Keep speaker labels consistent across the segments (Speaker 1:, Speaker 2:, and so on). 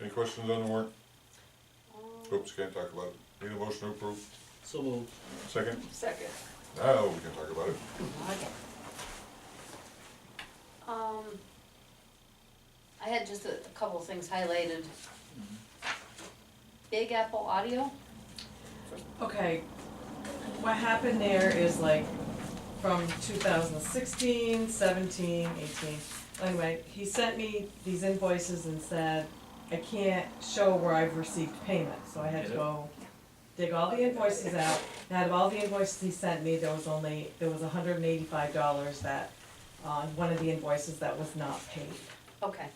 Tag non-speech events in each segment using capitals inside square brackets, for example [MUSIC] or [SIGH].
Speaker 1: Any questions on the warrant?
Speaker 2: Um,
Speaker 1: Oops, can't talk about it. Need a motion to approve?
Speaker 3: So moved.
Speaker 1: Second?
Speaker 4: Second.
Speaker 1: Now we can talk about it.
Speaker 2: Um, I had just a a couple of things highlighted. Big Apple Audio,
Speaker 4: Okay, what happened there is like from 2016, 17, 18. Anyway, he sent me these invoices and said, I can't show where I've received payment, so I had to
Speaker 3: Yeah.
Speaker 4: go dig all the invoices out. And out of all the invoices he sent me, there was only, there was hundred and eighty-five dollars that, on one of the invoices that was not paid.
Speaker 2: Okay.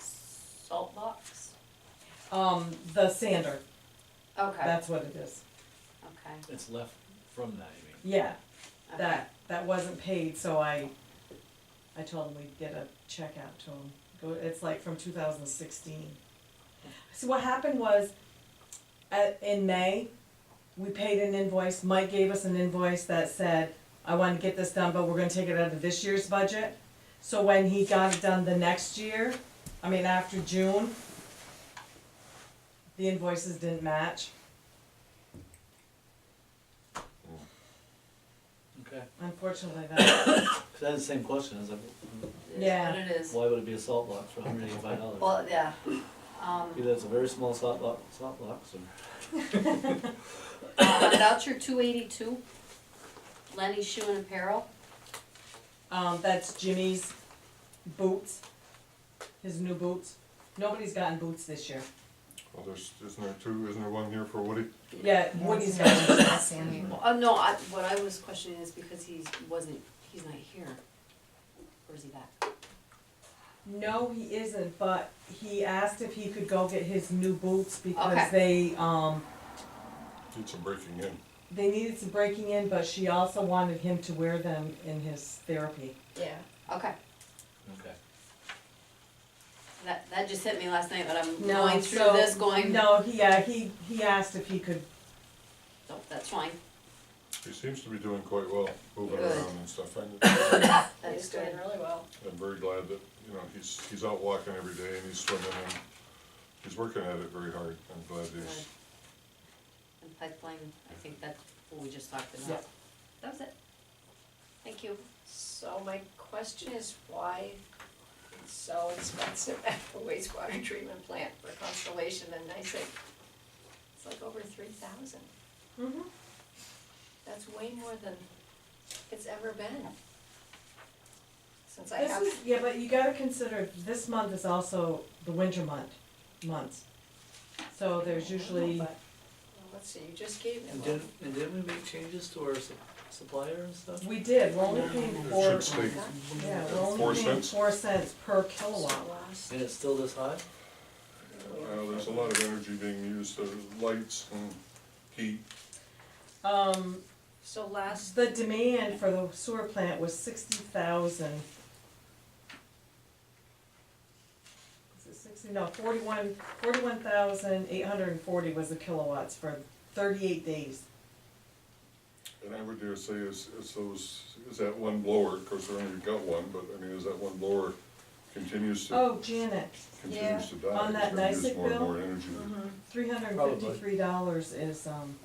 Speaker 2: Salt box?
Speaker 4: Um, the sander,
Speaker 2: Okay,
Speaker 4: that's what it is.
Speaker 2: okay,
Speaker 3: It's left from that, you mean?
Speaker 4: Yeah,
Speaker 2: okay.
Speaker 4: that, that wasn't paid, so I, I told him we'd get a check out to him. Go, it's like from two thousand sixteen. So what happened was, at, in May, we paid an invoice, Mike gave us an invoice that said, I wanna get this done, but we're gonna take it out of this year's budget. So when he got it done the next year, I mean, after June, the invoices didn't match,
Speaker 3: Okay.
Speaker 4: unfortunately, that,
Speaker 3: Cause I had the same question, I was like,
Speaker 2: It is
Speaker 4: Yeah.
Speaker 2: what it is.
Speaker 3: why would it be a salt box for hundred eighty-five dollars?
Speaker 2: Well, yeah, um,
Speaker 3: Either it's a very small salt box, salt box, or
Speaker 2: uh, voucher two eighty-two, Lenny Shoe and Apparel,
Speaker 4: Um, that's Jimmy's boots, his new boots. Nobody's gotten boots this year.
Speaker 1: Well, there's, isn't there two, isn't there one here for Woody?
Speaker 4: Yeah, Woody's gotten boots.
Speaker 2: Well, Uh, no, I, what I was questioning is because he's, wasn't, he's not here, or is he back?
Speaker 4: No, he isn't, but he asked if he could go get his new boots because they, um,
Speaker 1: Did some breaking in.
Speaker 4: they needed some breaking in, but she also wanted him to wear them in his therapy.
Speaker 5: Yeah.
Speaker 2: Okay,
Speaker 3: okay.
Speaker 2: that, that just hit me last night, but I'm
Speaker 4: No,
Speaker 2: going through
Speaker 4: Um, so-
Speaker 2: this, going, no,
Speaker 4: No, he, uh, he, he asked if he could,
Speaker 2: that's fine,
Speaker 1: He seems to be doing quite well, moving
Speaker 2: Good.
Speaker 1: around and stuff. I'm [COUGHS]
Speaker 2: that's
Speaker 5: He's doing
Speaker 2: good.
Speaker 5: really well.
Speaker 1: I'm very glad that, you know, he's, he's out walking every day and he's swimming and he's working at it very hard. I'm glad he's,
Speaker 2: And pipeline, I think that's what we just talked
Speaker 4: Yeah.
Speaker 2: about. That was it. Thank you.
Speaker 5: So my question is why it's so expensive at the wastewater treatment plant for Constellation and I say, it's like over three thousand.
Speaker 2: Mm-hmm.
Speaker 5: That's way more than it's ever been. Since I
Speaker 4: This
Speaker 5: have,
Speaker 4: is, yeah, but you gotta consider, this month is also the winter month, months. So there's usually,
Speaker 5: But- well, let's see, you just gave me
Speaker 3: And
Speaker 5: one.
Speaker 3: didn't, and didn't we make changes to our su- supplier and stuff?
Speaker 4: we did, we're only paying
Speaker 1: it
Speaker 4: four,
Speaker 1: should stay,
Speaker 4: yeah,
Speaker 1: Four
Speaker 4: we're only paying
Speaker 1: cents?
Speaker 4: four cents per
Speaker 5: So
Speaker 4: kilowatt.
Speaker 5: lost.
Speaker 3: And it's still this high?
Speaker 1: well, there's a lot of energy being used, there's lights and heat.
Speaker 4: Um,
Speaker 5: So last,
Speaker 4: the demand for the sewer plant was sixty thousand. Is it sixty, no, forty-one, forty-one thousand eight hundred and forty was the kilowatts for thirty-eight days.
Speaker 1: And I would dare say is, is those, is that one blower, of course, we only got one, but I mean, is that one blower continues to,
Speaker 4: Oh, Janet,
Speaker 5: yeah,
Speaker 1: continues to die?
Speaker 4: on that Mm-hmm.
Speaker 1: it's gonna use
Speaker 4: NYSEC
Speaker 1: more and
Speaker 4: bill?
Speaker 1: More energy.
Speaker 4: three hundred and fifty-three dollars is, um,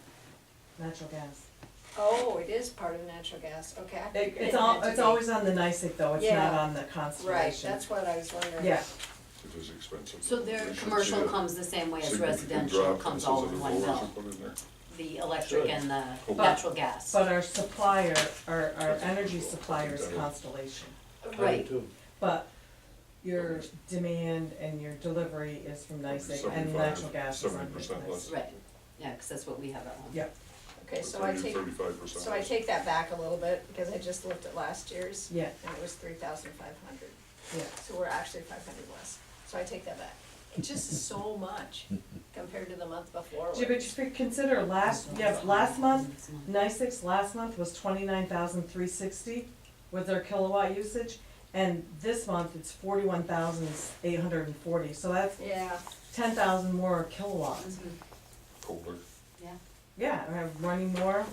Speaker 4: natural gas.
Speaker 5: oh, it is part of natural gas, okay. I
Speaker 4: It,
Speaker 5: figured
Speaker 4: it's
Speaker 5: it
Speaker 4: all,
Speaker 5: had to
Speaker 4: it's
Speaker 5: be.
Speaker 4: always on the NICIC though, it's not
Speaker 5: Yeah.
Speaker 4: on the
Speaker 5: Right,
Speaker 4: Constellation.
Speaker 5: that's what I was wondering.
Speaker 4: Yeah,
Speaker 1: It is expensive.
Speaker 2: So their
Speaker 1: They should see
Speaker 2: commercial
Speaker 1: a
Speaker 2: comes the same way as
Speaker 1: significant drop
Speaker 2: residential
Speaker 1: in
Speaker 2: comes
Speaker 1: those
Speaker 2: all
Speaker 1: other
Speaker 2: in one
Speaker 1: blowers
Speaker 2: bill,
Speaker 1: we put in there.
Speaker 2: the electric
Speaker 3: Sure.
Speaker 2: and the
Speaker 1: Cool.
Speaker 2: natural gas.
Speaker 4: but our supplier, our, our energy supplier is Constellation.
Speaker 2: Right.
Speaker 3: Too.
Speaker 4: But your demand and your delivery is from NICIC and
Speaker 1: 75,
Speaker 4: natural gas is on
Speaker 1: 70% less.
Speaker 4: NICIC.
Speaker 2: Right, yeah, because that's what we have at home.
Speaker 4: Yeah.
Speaker 5: Okay, so I take,
Speaker 1: Thirty-five percent.
Speaker 5: so I take that back a little bit, because I just looked at last year's,
Speaker 4: Yeah,
Speaker 5: and it was three thousand five hundred,
Speaker 4: yeah.
Speaker 5: so we're actually five hundred less, so I take that back. It just is so much compared to the month before.
Speaker 4: Yeah, but you should consider last, yeah, last month, NICIC's last month was twenty-nine thousand three sixty with their kilowatt usage. And this month, it's forty-one thousand eight hundred and forty, so that's
Speaker 5: Yeah,
Speaker 4: ten thousand more kilowatts.
Speaker 2: Mhm,
Speaker 1: Colder.
Speaker 2: Yeah,
Speaker 4: Yeah, and I'm running more,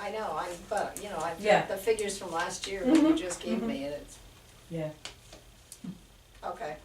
Speaker 5: I know, I, but, you know, I've
Speaker 4: Yeah. Mm-hmm.
Speaker 5: got the figures from last year, that you
Speaker 4: Mhm,
Speaker 5: just gave
Speaker 4: mhm.
Speaker 5: me, and it's,
Speaker 4: yeah.
Speaker 5: okay,